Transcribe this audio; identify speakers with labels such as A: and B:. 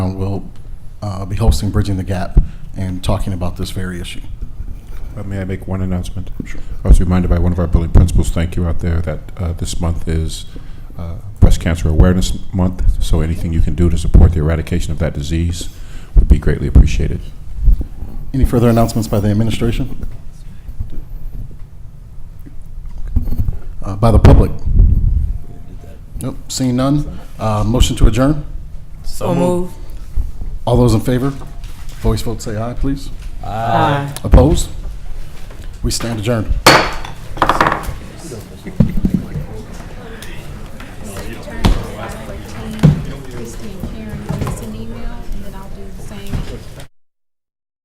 A: town will Um, uh, be hosting Bridging the Gap and talking about this very issue.
B: Uh, May I make one announcement? Sure. I was reminded by one of our building principals, thank you out there, that uh, this month is uh, Breast Cancer Awareness Month, so anything you can do to support the eradication of that disease would be greatly appreciated.
A: Any further announcements by the administration? Uh, By the public? Nope, seeing none. Uh, Motion to adjourn?
C: So move.
A: All those in favor? Voice vote, say aye, please. Aye. Opposed? We stand adjourned.
D: Christine Karen, send an email, and then I'll do the same